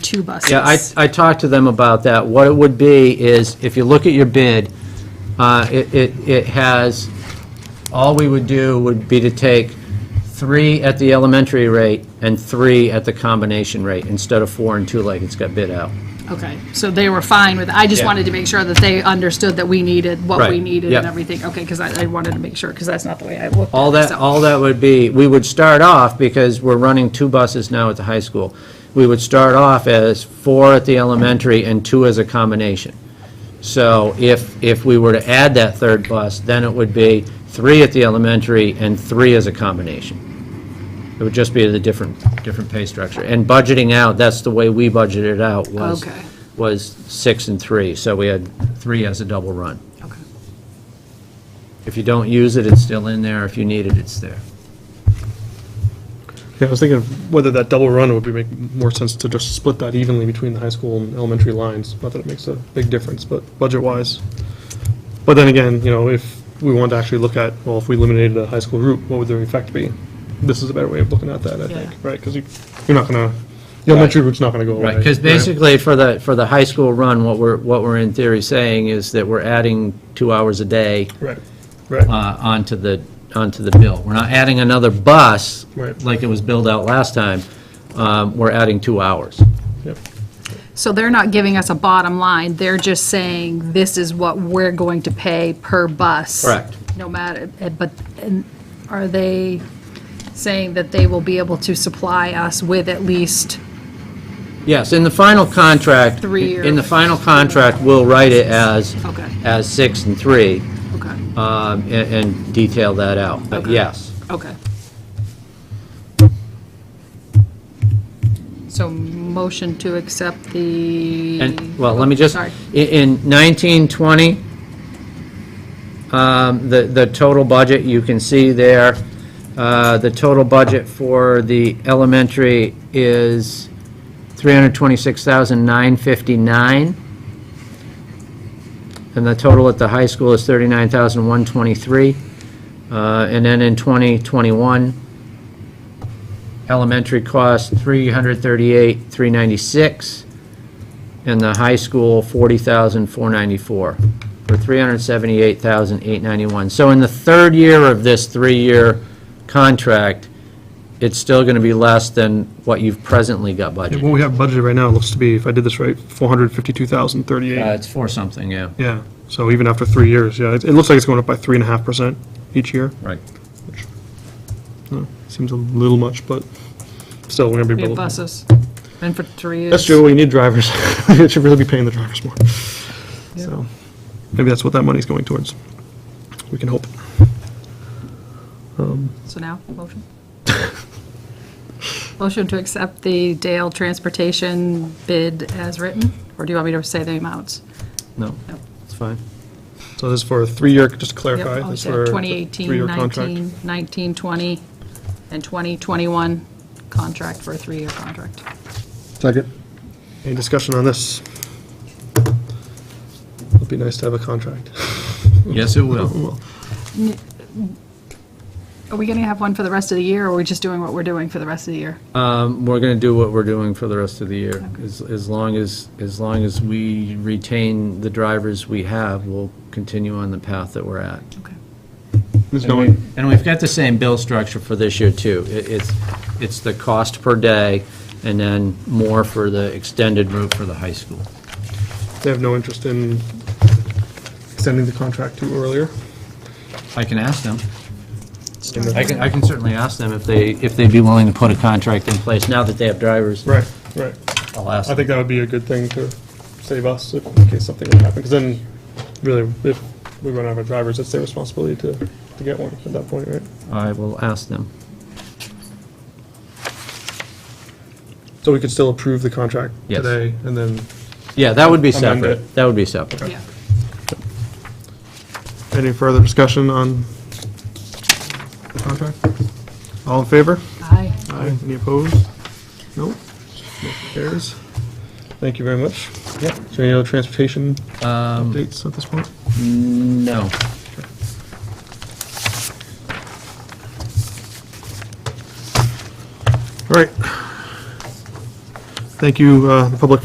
two buses. Yeah, I, I talked to them about that. What it would be is, if you look at your bid, uh, it, it it has, all we would do would be to take three at the elementary rate and three at the combination rate, instead of four and two like it's got bid out. Okay, so they were fine with, I just Yeah. wanted to make sure that they understood that we needed what we Right, needed and yeah. everything. Okay, because I, I wanted to make sure, because that's not the way I looked. at All it, that, so- all that would be, we would start off, because we're running two buses now at the high school, we would start off as four at the elementary and two as a combination. So if, if we were to add that third bus, then it would be three at the elementary and three as a combination. It would just be the different, different pay structure. And budgeting out, that's the way we budgeted out, was, Okay. was six and three, so we had three as a double run. Okay. If you don't use it, it's still in there, if you need it, it's there. Yeah, I was thinking of whether that double run would be, make more sense to just split that evenly between the high school and elementary lines. Not that it makes a big difference, but budget-wise. But then again, you know, if we want to actually look at, well, if we eliminated the high school route, what would the effect be? This is a better way of looking at that, I Yeah. think, right? Because you, you're not gonna, the elementary route's not gonna go away. Right, because basically, for the, for the high school run, what we're, what we're in theory saying is that we're adding two hours a day Right, right, uh, onto the, onto the bill. We're not adding another bus, Right. like it was billed out last time. Um, We're adding two hours. yep. So they're not giving us a bottom line, they're just saying, this is what we're going to pay per bus. Correct. No matter, eh, but, and are they saying that they will be able to supply us with at least, Yes, in the final contract. Three or- In the final contract, we'll write it as, Okay. as six and three, okay, um, and and detail that out. But Okay. yes, okay. So motion to accept the. And, well, let me just, Sorry. i- in 1920, um, the, the total budget, you can see there, uh, the total budget for the elementary is 326,959. And the total at the high school is 39,123. Uh, And then in 2021, elementary cost 338,396 and the high school, 40,494, for 378,891. So in the third year of this three-year contract, it's still going to be less than what you've presently got budgeted. What we have budgeted right now looks to be, if I did this right, four hundred fifty-two thousand Uh, thirty-eight. It's four something, yeah. Yeah, so even after three years, yeah, it, it looks like it's going up by three and a half percent each year. Right. Uh, Seems a little much, but still, we're gonna be. We have below- buses, and for three years. That's true, we need drivers. It should really be paying the drivers more. So, maybe that's what that money's going towards. We can hope. So now, motion? Motion to accept the Dale Transportation bid as written, or do you want me to say the amounts? No, No. it's fine. So this is for a three-year, just to Yep, clarify, oh, this is yeah, for. a 2018, three-year contract. 19, 19, 20, and 2021 contract for a three-year contract. Second. Any discussion on this? It'd be nice to have a contract. Yes, it will. Well, Are we going to have one for the rest of the year, or are we just doing what we're doing for the rest of the year? Um, We're going to do what we're doing for the rest of the year. As as long as, as long as we retain the drivers we have, we'll continue on the path that we're at. Okay. There's And no, we- and we've got the same bill structure for this year, too. It- It's, it's the cost per day, and then more for the extended route for the high school. they have no interest in extending the contract to earlier. I can ask them. I can, I can certainly ask them if they, if they'd be willing to put a contract in place now that they have drivers. Right, right. I'll ask I them. think that would be a good thing to save us if- in case something would happen, because then, really, if we run out of drivers, it's their responsibility to, to get one at that point, right? I will ask them. So we could still approve the contract Yes. today, and then, Yeah, that would be Amend separate. it. That would be separate. Yeah. any further discussion on the contract? All in favor? Aye. Aye. Any opposed? No? Motion carries. Thank you very much. Yep. Is there any other transportation updates at this point? No. All right. Thank you, uh, the public